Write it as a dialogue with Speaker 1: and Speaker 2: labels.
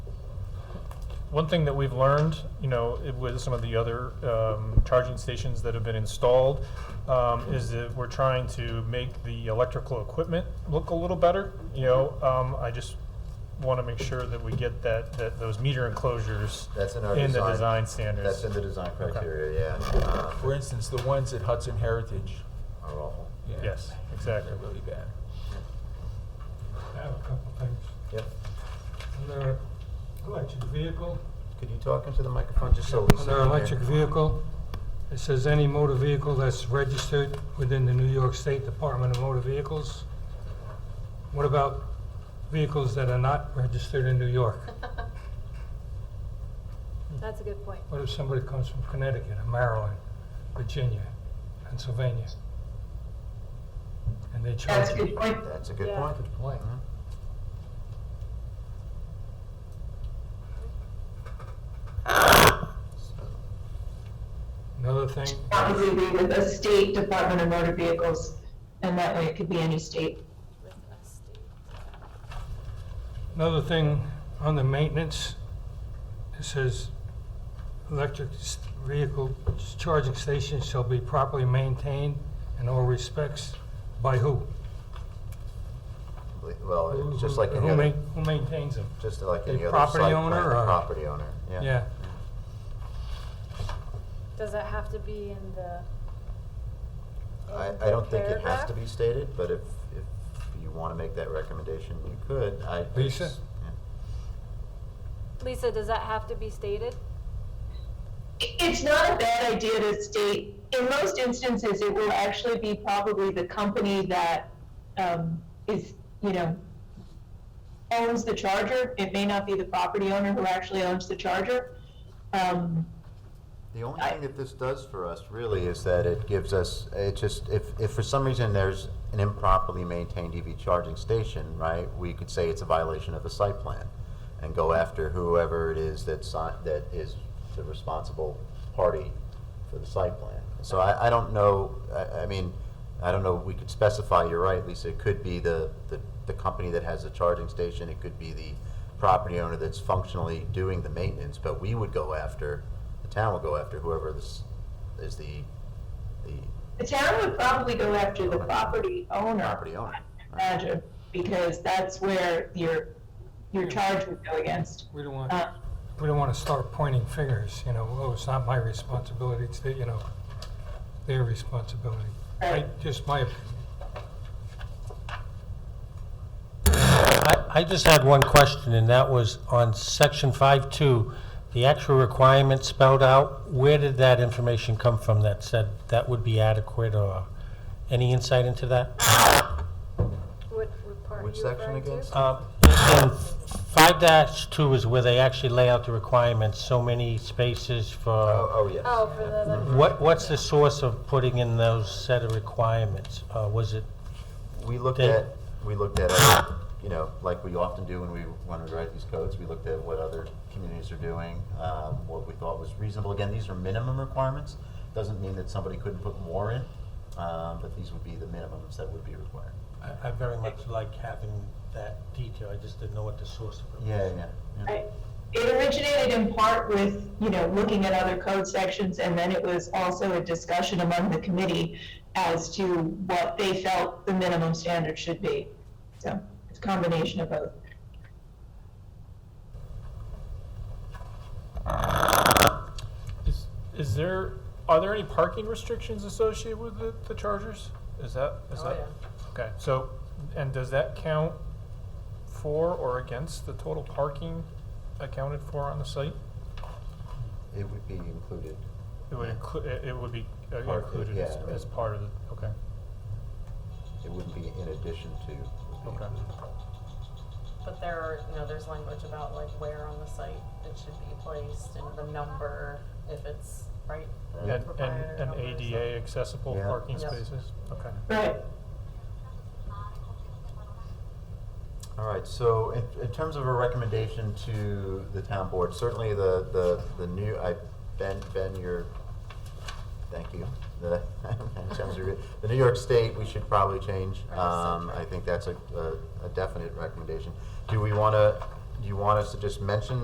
Speaker 1: one thing that we've learned, you know, it- with some of the other um, charging stations that have been installed, um, is that we're trying to make the electrical equipment look a little better. You know, um, I just want to make sure that we get that, that those meter enclosures
Speaker 2: That's in our
Speaker 1: in the
Speaker 2: design.
Speaker 1: design standards.
Speaker 2: That's in the design criteria, yeah. Um,
Speaker 3: For instance, the ones at Hudson Heritage.
Speaker 2: Are awful.
Speaker 3: yeah,
Speaker 1: Yes, exactly.
Speaker 3: They're really bad.
Speaker 4: I have a couple things.
Speaker 2: Yep.
Speaker 4: Under electric vehicle,
Speaker 2: Could you talk into the microphone just so we see?
Speaker 4: under electric vehicle, it says any motor vehicle that's registered within the New York State Department of Motor Vehicles. What about vehicles that are not registered in New York?
Speaker 5: That's a good point.
Speaker 4: What if somebody comes from Connecticut or Maryland, Virginia, Pennsylvania? And they charge
Speaker 6: That's a
Speaker 4: you.
Speaker 6: good point.
Speaker 2: That's a good
Speaker 5: Yeah.
Speaker 2: point.
Speaker 3: Good point.
Speaker 2: Mhm.
Speaker 4: Another thing,
Speaker 6: That would be with the state Department of Motor Vehicles, and that way it could be any state.
Speaker 5: with a state.
Speaker 4: Another thing on the maintenance, it says electric s- vehicle charging stations shall be properly maintained in all respects by who?
Speaker 2: Well,
Speaker 4: Who-
Speaker 2: it's just
Speaker 4: who-
Speaker 2: like any
Speaker 4: who
Speaker 2: other,
Speaker 4: ma- Who maintains them?
Speaker 2: just like
Speaker 4: the
Speaker 2: any other site
Speaker 4: property
Speaker 2: plan,
Speaker 4: owner or-
Speaker 2: property owner, yeah.
Speaker 4: Yeah,
Speaker 5: Does that have to be in the?
Speaker 2: I,
Speaker 5: in
Speaker 2: I don't think it has
Speaker 5: paragraph?
Speaker 2: to be stated, but if, if you want to make that recommendation, you could. I-
Speaker 4: Lisa?
Speaker 2: it's- yeah.
Speaker 5: Lisa, does that have to be stated?
Speaker 6: It's not a bad idea to state, in most instances, it will actually be probably the company that um, is, you know, owns the charger. It may not be the property owner who actually owns the charger. Um,
Speaker 2: The only
Speaker 6: I-
Speaker 2: thing that this does for us really is that it gives us, it just, if, if for some reason there's an improperly maintained EV charging station, right, we could say it's a violation of the site plan and go after whoever it is that si- that is the responsible party for the site plan. So I, I don't know, I, I mean, I don't know, we could specify, you're right, Lisa, it could be the, the, the company that has the charging station, it could be the property owner that's functionally doing the maintenance, but we would go after, the town would go after whoever this is the, the
Speaker 6: The town would probably go after the property owner.
Speaker 2: property owner. right?
Speaker 6: Imagine, because that's where your, your charge would go against.
Speaker 4: we don't want,
Speaker 6: Uh,
Speaker 4: we don't want to start pointing fingers, you know, oh, it's not my responsibility, it's their, you know, their responsibility. I,
Speaker 6: Right.
Speaker 4: just my opinion.
Speaker 7: I, I just had one question, and that was on section five-two, the actual requirements spelled out, where did that information come from that said that would be adequate, or any insight into that?
Speaker 5: What, what part are
Speaker 2: Which
Speaker 5: you
Speaker 2: section
Speaker 5: referring to?
Speaker 2: again?
Speaker 7: Um, And five dash two is where they actually lay out the requirements, so many spaces
Speaker 2: Oh,
Speaker 7: for,
Speaker 2: oh, yes.
Speaker 5: Oh, for the electric.
Speaker 7: what, what's the source of putting in those set of requirements? Uh, was it,
Speaker 2: We looked
Speaker 7: Dave?
Speaker 2: at, we looked at, other, you know, like we often do when we, when we write these codes, we looked at what other communities are doing, um, what we thought was reasonable. Again, these are minimum requirements, doesn't mean that somebody couldn't put more in, um, but these would be the minimums that would be required.
Speaker 7: I, I very much like having that detail, I just didn't know what the source of it was.
Speaker 2: Yeah, yeah, yeah.
Speaker 6: I- It originated in part with, you know, looking at other code sections, and then it was also a discussion among the committee as to what they felt the minimum standard should be. So it's a combination of both.
Speaker 1: Is, is there, are there any parking restrictions associated with the, the chargers? Is that, is
Speaker 5: Oh,
Speaker 1: that?
Speaker 5: yeah.
Speaker 1: Okay, so, and does that count for or against the total parking accounted for on the site?
Speaker 2: It would be included.
Speaker 1: It would include, it it would be uh,
Speaker 2: Part-
Speaker 1: included as,
Speaker 2: yeah.
Speaker 1: as part of the, okay.
Speaker 2: It wouldn't be in addition to. it would be
Speaker 1: Okay.
Speaker 2: included.
Speaker 8: But there are, you know, there's language about like where on the site it should be placed and the number, if it's, right? the
Speaker 1: And, and,
Speaker 8: proprietor
Speaker 1: and
Speaker 8: number or
Speaker 1: ADA accessible
Speaker 2: Yeah.
Speaker 1: parking
Speaker 8: Yep.
Speaker 1: spaces? Okay.
Speaker 6: Right.
Speaker 2: All right, so in, in terms of a recommendation to the town board, certainly the, the, the new, I, Ben, Ben, your, thank you. The, in terms of your- the New York State, we should probably change.
Speaker 8: Right,
Speaker 2: Um, I think that's a, a- a definite recommendation. Do we wanna, do you want us to just mention